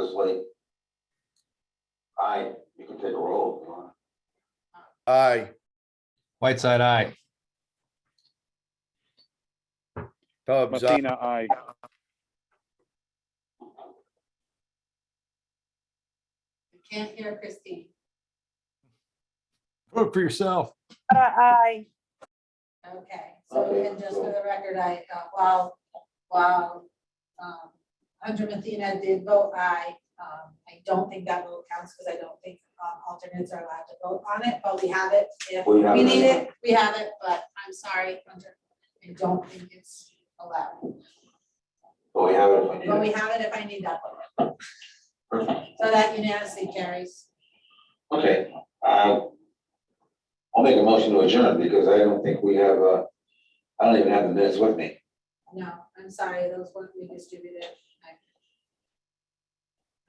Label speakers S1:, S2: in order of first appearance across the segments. S1: Kelly. Aye, you can take a roll if you want.
S2: Aye.
S3: Whiteside, aye.
S2: Tubbs, aye.
S4: Messina, aye.
S5: I can't hear Christine.
S3: Vote for yourself.
S6: Aye.
S5: Okay, so
S1: Okay,
S5: and just for
S1: so-
S5: the record, I, uh, while, while um, Hunter Mathina did vote aye, um, I don't think that vote counts because I don't think um, alternates are allowed to vote on it, but we have it. If
S1: We have
S5: we
S1: it.
S5: need it, we have it, but I'm sorry, Hunter, I don't think it's allowed.
S1: But we have it if we
S5: But
S1: need
S5: we
S1: it.
S5: have it if I need that vote.
S1: Perfect.
S5: So that unanimously carries.
S1: Okay, uh, I'll make a motion to adjourn because I don't think we have, uh, I don't even have the minutes with me.
S5: No, I'm sorry, those weren't redistributed. I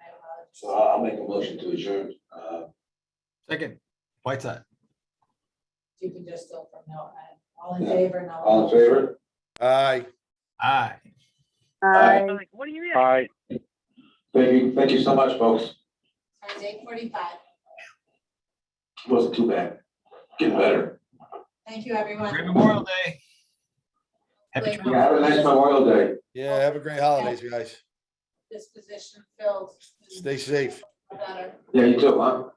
S5: I apologize.
S1: So I'll I'll make a motion to adjourn. Uh,
S3: Second, Whiteside.
S5: You can just go from now on. All in favor, no?
S1: all in favor?
S2: Aye.
S3: Aye.
S1: Aye.
S6: Like, What do you mean?
S4: Aye.
S1: Thank you, thank you so much, folks.
S5: Time's eight forty-five.
S1: Wasn't too bad. Getting better.
S5: Thank you, everyone.
S3: Great Memorial Day. Happy
S5: Wait.
S3: trails.
S1: Yeah, have a nice Memorial Day.
S2: Yeah, have a great holidays, guys.
S5: This position filled.
S2: Stay safe.
S5: Better.
S1: Yeah, you too, huh?